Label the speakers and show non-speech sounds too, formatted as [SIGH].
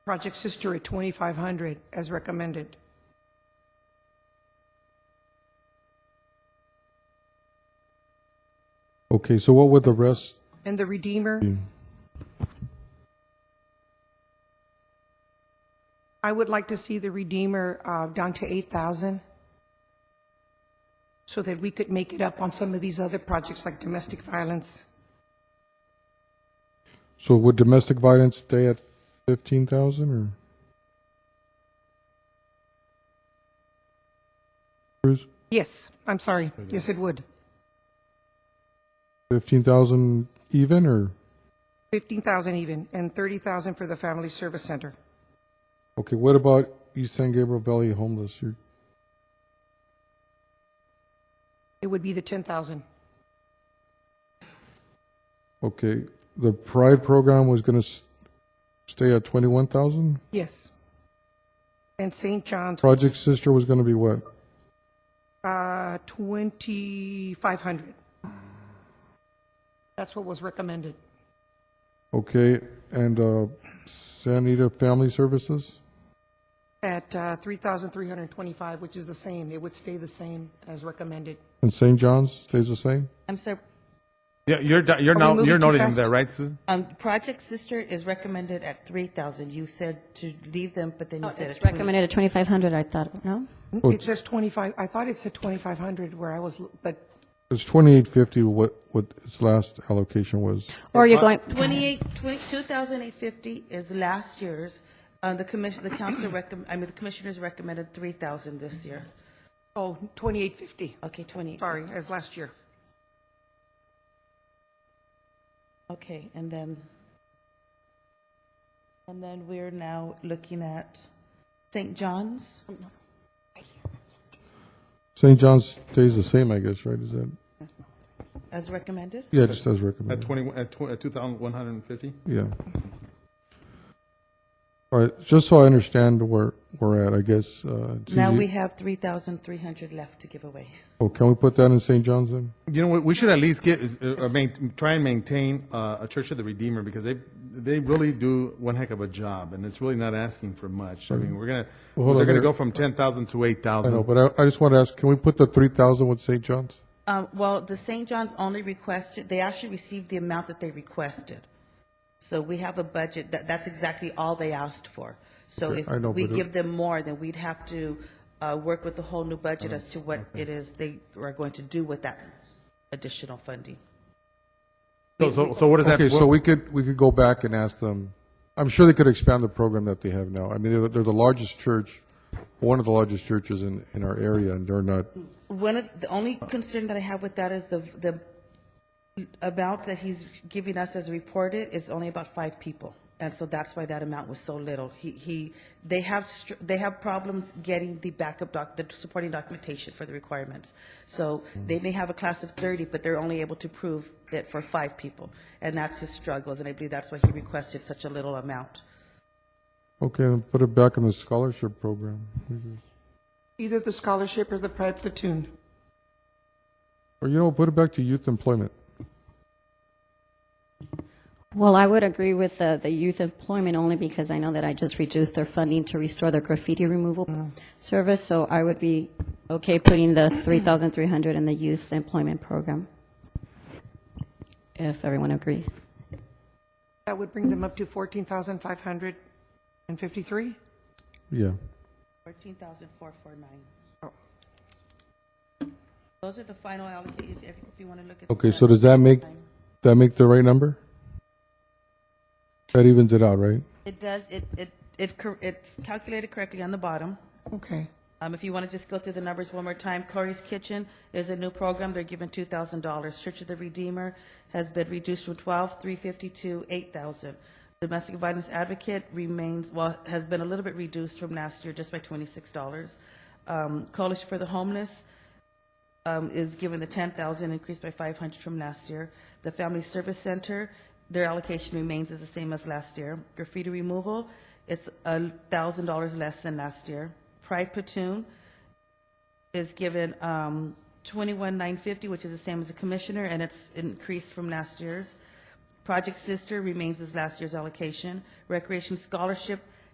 Speaker 1: Project Sister at 2,500 as recommended.
Speaker 2: Okay, so what would the rest,
Speaker 1: And the Redeemer? I would like to see the Redeemer uh, down to 8,000 so that we could make it up on some of these other projects like domestic violence.
Speaker 2: so would domestic violence stay at 15,000 or? Cruz,
Speaker 1: Yes, I'm sorry. Yes, it would.
Speaker 2: 15,000 even or?
Speaker 1: 15,000 even, and 30,000 for the Family Service Center.
Speaker 2: Okay, what about East San Gabriel Valley homeless? You're-
Speaker 1: It would be the 10,000.
Speaker 2: Okay, the Pride program was going to stay at 21,000?
Speaker 1: Yes. And St. John's. was,
Speaker 2: Project Sister was going to be what?
Speaker 1: Uh, 2,500. That's what was recommended.
Speaker 2: Okay, and uh, San Anita Family Services?
Speaker 1: At uh, 3,325, which is the same. It would stay the same as recommended.
Speaker 2: And St. John's stays the same?
Speaker 3: I'm sorry,
Speaker 4: Yeah, you're do- you're
Speaker 1: Are we
Speaker 4: now
Speaker 1: moving
Speaker 4: you're
Speaker 1: too
Speaker 4: noting
Speaker 1: fast?
Speaker 4: that, right, Susan?
Speaker 3: um, Project Sister is recommended at three thousand. You said to leave them, but then
Speaker 5: No,
Speaker 3: you said at
Speaker 5: Oh, it's
Speaker 3: twenty.
Speaker 5: recommended at 2,500, I thought, no?
Speaker 1: It says 25, I thought it said 2,500 where I was, l- but
Speaker 2: It's 2850 what, what its last allocation was.
Speaker 5: Or you're going,
Speaker 3: Twenty-eight, twenty, two thousand eight fifty is last year's. Uh, the commission, the council
Speaker 5: [CLEARS THROAT]
Speaker 3: recommend, I mean, the commissioners recommended three thousand this year.
Speaker 1: Oh, 2850,
Speaker 3: Okay, twenty.
Speaker 1: sorry, as last year.
Speaker 3: Okay, and then, and then we're now looking at St. John's.
Speaker 2: St. John's stays the same, I guess, right? Is that,
Speaker 3: As recommended?
Speaker 2: yeah, just as
Speaker 4: At
Speaker 2: recommended.
Speaker 4: twenty at, tw- at two thousand one hundred and fifty.
Speaker 2: Yeah. All right, just so I understand where we're at, I guess. uh, it's
Speaker 3: Now
Speaker 2: easy-
Speaker 3: we have 3,300 left to give away.
Speaker 2: Oh, can we put that in St. John's then?
Speaker 4: You know, what? we should at least get uh, uh, main, try and maintain uh, a Church of the Redeemer because they they really do one heck of a job, and it's really not asking for much. I mean, we're gonna
Speaker 2: Well, hold
Speaker 4: they're
Speaker 2: on,
Speaker 4: gonna
Speaker 2: there-
Speaker 4: go from ten thousand to eight
Speaker 2: I know,
Speaker 4: thousand.
Speaker 2: but I, I just want to ask, can we put the 3,000 with St. John's?
Speaker 3: Um, well, the St. John's only requested, they actually received the amount that they requested. So we have a budget, that, that's exactly all they asked for. So
Speaker 2: Okay,
Speaker 3: if
Speaker 2: I know,
Speaker 3: we
Speaker 2: but uh, it-
Speaker 3: give them more, then we'd have to, uh, work with the whole new
Speaker 2: Uh,
Speaker 3: budget as to what it is they are going to do with that additional funding.
Speaker 4: So, so, so what does that?
Speaker 2: Okay, so
Speaker 4: what-
Speaker 2: we could, we could go back and ask them, I'm sure they could expand the program that they have now. I mean, they're, they're the largest church, one of the largest churches in, in our area, and they're not,
Speaker 3: One of, the only concern that I have with that is the, the amount that he's giving us as reported is only about five people. And so that's why that amount was so little. He, he, they have, str- they have problems getting the backup doc, the supporting documentation for the requirements. So they may have a class of thirty, but they're only able to prove that for five people. And that's his struggles, and I believe that's why he requested such a little amount.
Speaker 2: okay, then put it back in the scholarship program.
Speaker 1: Either the scholarship or the pride platoon.
Speaker 2: Or, you know, put it back to youth employment.
Speaker 5: well, I would agree with the, the youth employment only because I know that I just reduced their funding to restore their graffiti removal service, so I would be okay putting the 3,300 in the youth employment program, if everyone agrees.
Speaker 1: That would bring them up to 14,553?
Speaker 2: Yeah.
Speaker 3: Fourteen thousand four four nine. Those are the final allocated, if, if you want to look at. the
Speaker 2: Okay, so
Speaker 3: final.
Speaker 2: does that make, that make the right number? That evens it out, right?
Speaker 3: It does, it, it, it, cor- it's calculated correctly on the bottom.
Speaker 1: Okay.
Speaker 3: Um, if you want to just go through the numbers one more time, Corey's Kitchen is a new program, they're given two thousand dollars. Church of the Redeemer has been reduced from twelve, three fifty to eight thousand. Domestic Violence Advocate remains, well, has been a little bit reduced from last year, just by twenty-six dollars. Um, Coalition for the Homeless, um, is given the ten thousand, increased by five hundred from last year. The Family Service Center, their allocation remains as the same as last year. Graffiti removal, it's a thousand dollars less than last year. Pride Platoon is given, um, twenty-one nine fifty, which is the same as the commissioner, and it's increased from last year's. Project Sister remains as last year's allocation. Recreation Scholarship